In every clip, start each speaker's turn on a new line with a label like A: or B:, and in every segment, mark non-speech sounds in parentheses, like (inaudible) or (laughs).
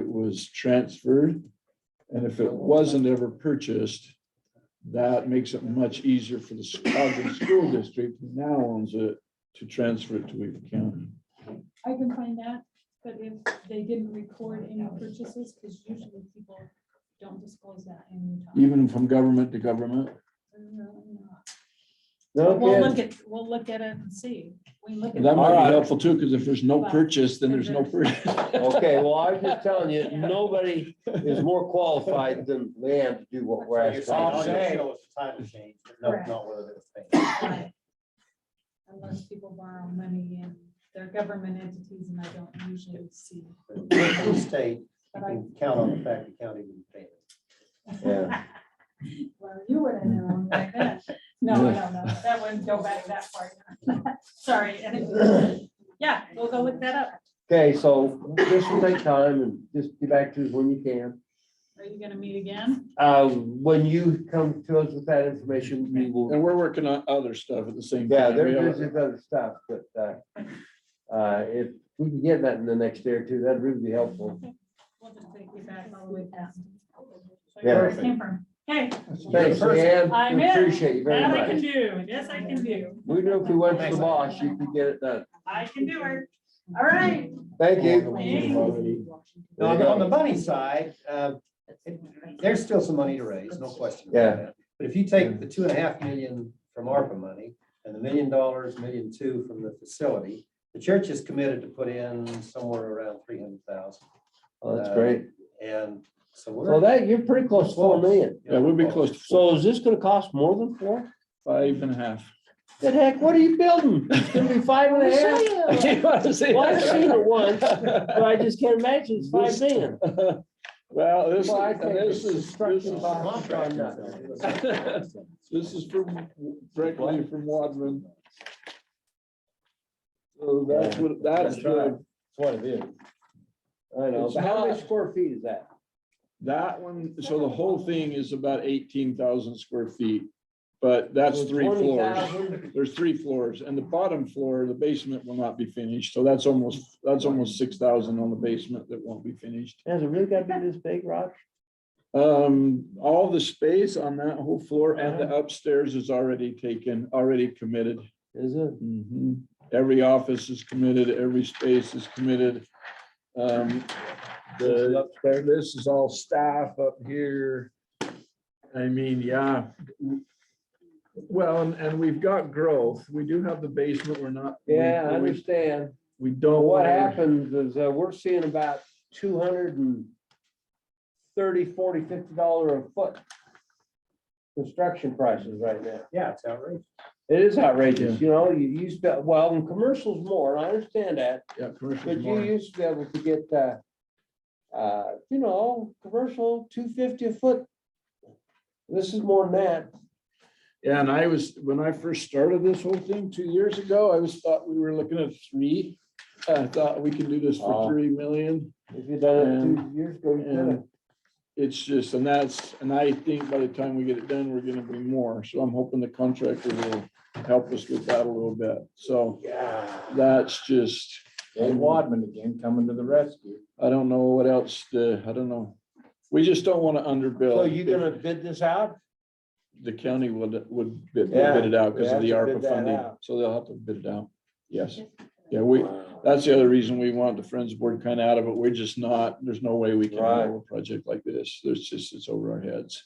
A: was transferred. And if it wasn't ever purchased, that makes it much easier for the Ogden School District, who now owns it, to transfer it to Weaver County.
B: I can find that, but if they didn't record any purchases, because usually people don't disclose that in Utah.
A: Even from government to government.
B: No, no. We'll look
C: Okay,
B: at, we'll look at it and see. We look at.
A: That might
C: Alright.
A: be helpful too, because if there's no purchase, then there's no purchase.
C: okay, well, I was just telling you, nobody is more qualified than Leanne to do what we're
D: Well, you're
C: asking.
D: saying all
C: her
D: you
C: to do.
D: show is the title change, but no,
B: Correct.
D: not whether it was paid.
B: Right. Unless people borrow money and they're government entities and I don't usually see.
D: But in the State, you
B: But I,
D: can count on the fact the county didn't pay it.
C: Yeah.
B: (laughs) well, you would have known like that. No, no, no, that wouldn't go back that far. (laughs) Sorry. (laughs) and it- Yeah, we'll go look that up.
C: Okay, so this will take time and just get back to us when you can.
B: Are you gonna meet again?
C: Uh, when you come to us with that information, we will,
A: And we're working on other stuff at the same time.
C: yeah,
A: We
C: there
A: have-
C: is this other stuff, but, uh, uh, if we can get that in the next day or two, that'd really be helpful.
B: We'll just take you back all the way down. So
C: Yeah.
B: where it came from. Hey,
C: Thanks, Leanne.
B: I'm
C: We
B: in.
C: Appreciate you very
B: that I can
C: much.
B: do. Yes, I can do.
C: We knew if we went to the boss, you could get it done.
B: I can do it. All right.
C: Thank you.
D: Now, on the money side, uh, it- there's still some money to raise, no question. about
C: Yeah.
D: that. But if you take the two and a half million from ARPA money and the million dollars, million two from the facility, the church is committed to put in somewhere around three hundred thousand.
C: Oh, that's great.
D: And so we're.
C: So that, you're pretty close to four million.
A: Yeah, we'll be close to four,
C: So is this gonna cost more than four?
A: five and a half.
C: (laughs) The heck, what are you building? It's gonna be five and a half? Well,
A: (laughs)
C: I've seen it once, but I just can't imagine it's five million.
A: Well, this,
C: Well, I think
A: this
C: it's
A: is, this
C: construction costs.
A: is. (laughs) This is from, directly from Wadman. So Oh, that's what, that's
C: That's right.
A: the,
C: That's what it is. I know.
A: It's
C: but How
A: not-
C: many square feet is that?
A: that one, so the whole thing is about eighteen thousand square feet. But that's
C: So
A: three floors.
C: 20,000?
A: There's three floors and the bottom floor, the basement will not be finished. So that's almost, that's almost six thousand on the basement that won't be finished.
C: Has it really got to be this big, Rob?
A: Um, all the space on that whole floor and the
C: Uh-huh.
A: upstairs is already taken, already committed.
C: Is it?
A: Mhm. Every office is committed, every space is committed. Um, the, this is all staff up here. I mean, yeah. Well, and, and we've got growth. We do have the basement. We're not. we-
C: Yeah, I
A: we-
C: understand.
A: We
C: But
A: don't.
C: what
A: wanna-
C: happens is uh, we're seeing about two hundred and thirty, forty, fifty dollar a foot construction prices right now.
D: Yeah, it's outrageous.
C: It is outrageous, you know, you used to, well, in commercials more, and I understand that,
A: Yeah, commercial
C: but you
A: more.
C: used to be able to get, uh, uh, you know, commercial two fifty a foot. This is more than that.
A: Yeah, and I was, when I first started this whole thing two years ago, I was thought we were looking at three. I thought we could do this
C: Wow.
A: for three million.
C: If you'd done it two years ago, you could have.
A: And it's just, and that's, and I think by the time we get it done, we're gonna be more. So I'm hoping the contractor will help us with that a little bit. So
C: Yeah.
A: that's just,
E: Dave Wadman again coming to the rescue.
A: I don't know what else to, I don't know. We just don't want to underbill.
C: So you gonna bid this out?
A: The county would, would bid
C: Yeah,
A: bid it out because of
C: we
A: the
C: have to bid
A: ARPA
C: that
A: funding.
C: out.
A: So they'll have to bid it out. Yes. Yeah, we, That's the other reason we want the Friends Board kind of out of it. We're just not, there's no way we can
C: Right.
A: handle a project like this. There's just, it's over our heads.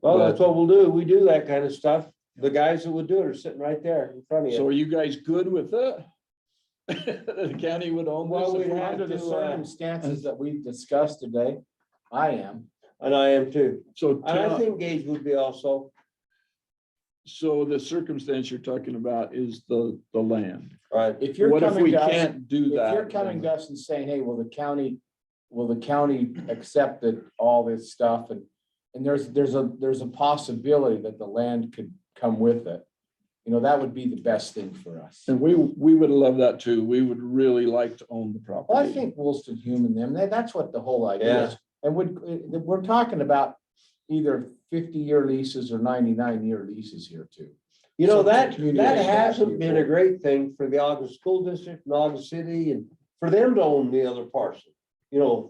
C: Well, that's
A: But-
C: what we'll do. We do that kind of stuff. The guys that would do it are sitting right there in front of
A: So
C: you.
A: are you guys good with it? (laughs) The county would own
C: Well,
A: this?
C: we have
E: Under the
C: to, uh,
E: circumstances that we've discussed today, I am.
C: And I am too.
A: So,
C: And I
A: tell-
C: think Gage would be also,
A: so the circumstance you're talking about is the, the land.
C: right?
E: If you're
A: What if
E: coming
A: we
E: to us,
A: can't do
E: if
A: that?
E: you're coming to us and saying, hey, will the county, will the county accept that all this stuff and and there's, there's a, there's a possibility that the land could come with it. You know, that would be the best thing for us.
A: And we, we would love that too. We would really like to own the property.
E: Well, I think Woolston Hume and them, that, that's what the whole idea is. And would, uh, we're talking about either fifty-year leases or ninety-nine-year leases here too.
C: You know,
E: Some
C: that,
E: community
C: that
E: has to
C: hasn't
E: be
C: been a
E: involved.
C: great thing for the August School District and August City and for them to own the other parcel. You know,